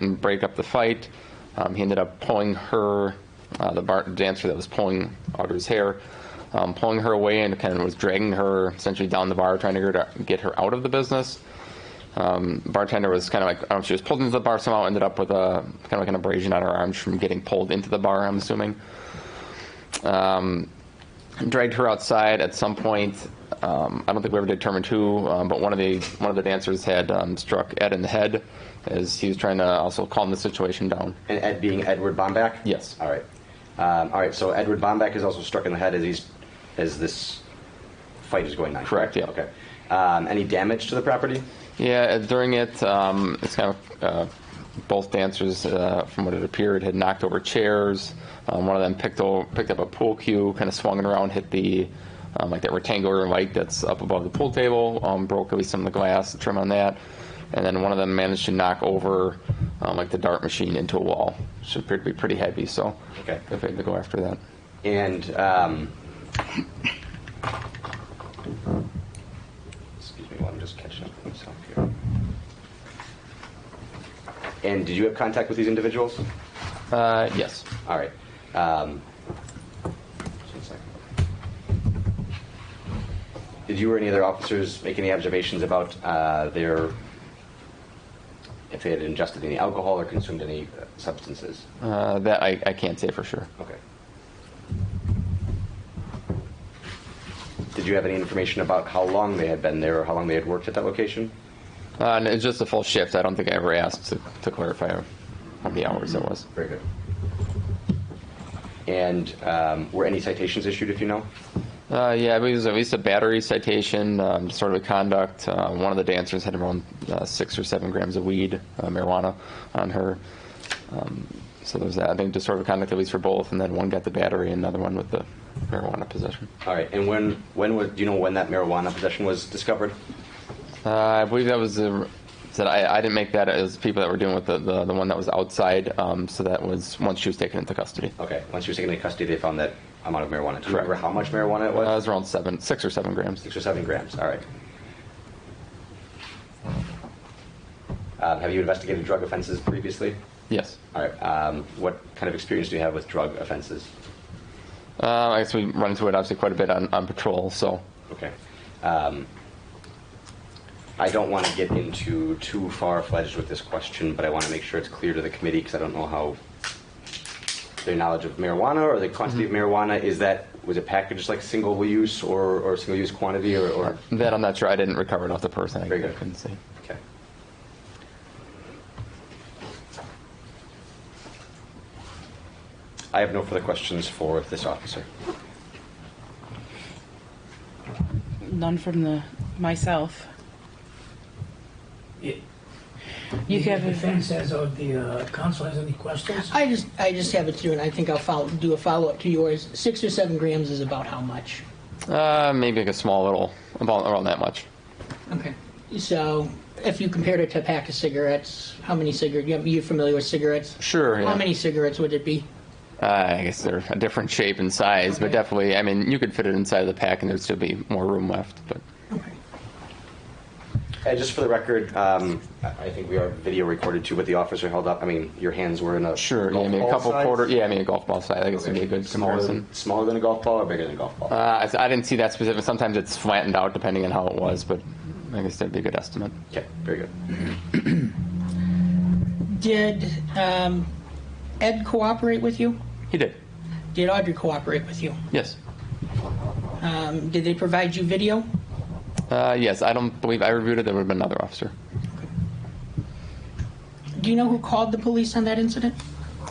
and break up the fight. Um, he ended up pulling her, uh, the bar- dancer that was pulling Audra's hair, um, pulling her away and kind of was dragging her essentially down the bar, trying to get her, get her out of the business. Um, bartender was kind of like, I don't know, she was pulled into the bar somehow, ended up with a kind of like an abrasion on her arm from getting pulled into the bar, I'm assuming. Um, dragged her outside at some point. Um, I don't think we ever determined who, um, but one of the one of the dancers had um, struck Ed in the head as he was trying to also calm the situation down. And Ed being Edward Bomback? Yes. All right. Um, all right, so Edward Bomback is also struck in the head as he's as this fight is going on. Correct, yeah. Okay. Um, any damage to the property? Yeah, uh, during it, um, it's kind of uh, both dancers, uh, from what it appeared, had knocked over chairs. Um, one of them picked o- picked up a pool cue, kind of swung it around, hit the um, like that rectangular light that's up above the pool table, um, broke at least some of the glass, the trim on that, and then one of them managed to knock over um, like the dart machine into a wall, which appeared to be pretty heavy. So Okay. if they had to go after that. And um, excuse me while I'm just catching up with myself here. And did you have contact with these individuals? Uh, yes. All right. Um, just one second. Did you or any other officers make any observations about uh, their if they had ingested any alcohol or consumed any uh, substances? Uh, that I, I can't say for sure. Okay. Did you have any information about how long they had been there or how long they had worked at that location? Uh, and it's just a full shift. I don't think I ever asked to, to clarify how many hours it was. Very good. And um, were any citations issued, if you know? Uh, yeah, I believe it was at least a battery citation, um, sort of a conduct. Uh, one of the dancers had around uh, six or seven grams of weed, uh, marijuana, on her. Um, so there's that. I think disorder of conduct at least for both, and then one got the battery, and another one with the marijuana possession. All right. And when when was do you know when that marijuana possession was discovered? Uh, I believe that was the said I, I didn't make that. It was people that were doing with the, the, the one that was outside. Um, so that was once she was taken into custody. Okay. Once she was taken into custody, they found that amount of marijuana. Do you Correct. remember how much marijuana it was? Uh, it was around seven, six or seven grams. Six or seven grams. All right. Um, have you investigated drug offenses previously? Yes. All right. Um, what kind of experience do you have with drug offenses? Uh, I guess we run into it obviously quite a bit on, on patrol. So Okay. Um, I don't want to get into too far fledged with this question, but I want to make sure it's clear to the committee because I don't know how their knowledge of marijuana or the quantity of marijuana is that was it packaged like single use or, or single use quantity or, or that I'm not sure. I didn't recover it off the person. I Very good. couldn't see. okay. I have no further questions for this officer. None from the myself. Yeah. You If have The a, defense has, or the uh, counsel has any questions? I just, I just have it through, and I think I'll follow, do a follow-up to yours. Six or seven grams is about how much? Uh, maybe like a small little, about around that much. Okay. So, if you compared it to a pack of cigarettes, how many cigarettes, you- you're familiar with cigarettes? Sure. Yeah. How many cigarettes would it be? Uh, I guess they're a different shape and size, but Okay. definitely. I mean, you could fit it inside of the pack, and there'd still be more room left. But Uh, just for the record, um, I I think we are video recorded too, but the officer held up. I mean, your hands were in a sure. Yeah, golf I mean, a ball couple size? quarter. Yeah, I mean, a golf ball size. I guess Okay. would be a good smaller comparison. than, smaller than a golf ball or bigger than a golf ball. Uh, I- I didn't see that specific. Sometimes it's flattened out depending on how it was, but I guess that'd be a good estimate. okay, very good. Did um, Ed cooperate with you? He did. Did Audrey cooperate with you? Yes. Um, Did they provide you video? Uh, yes. I don't believe I reviewed it. There would have been another officer. Do you know who called the police on that incident?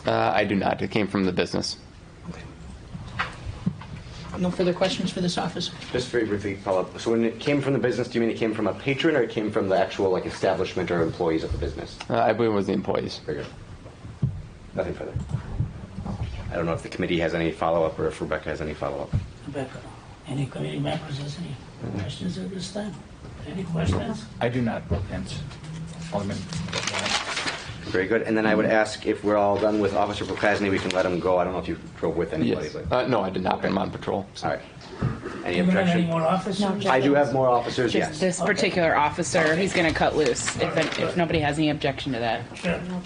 Uh, I do not. It came from the business. Okay. No further questions for this officer? Just very briefly follow up. So when it came from the business, do you mean it came from a patron or it came from the actual like establishment or employees of the business? Uh, I believe it was the employees. Very good. Nothing further. I don't know if the committee has any follow up or if Rebecca has any follow up. Rebecca, any committee members has any questions at this time? Any questions? I do not, and Alderman Lowe. Very good. And then I would ask if we're all done with Officer Prokazny, we can let him go. I don't know if you drove with anybody. Yes. but- Uh, no, I did not. I'm on patrol. all right. Any Do you have any objection? more officers? No I objection. do have more officers, just yes. this particular officer, he's gonna cut loose if, if nobody has any objection to that. Sure.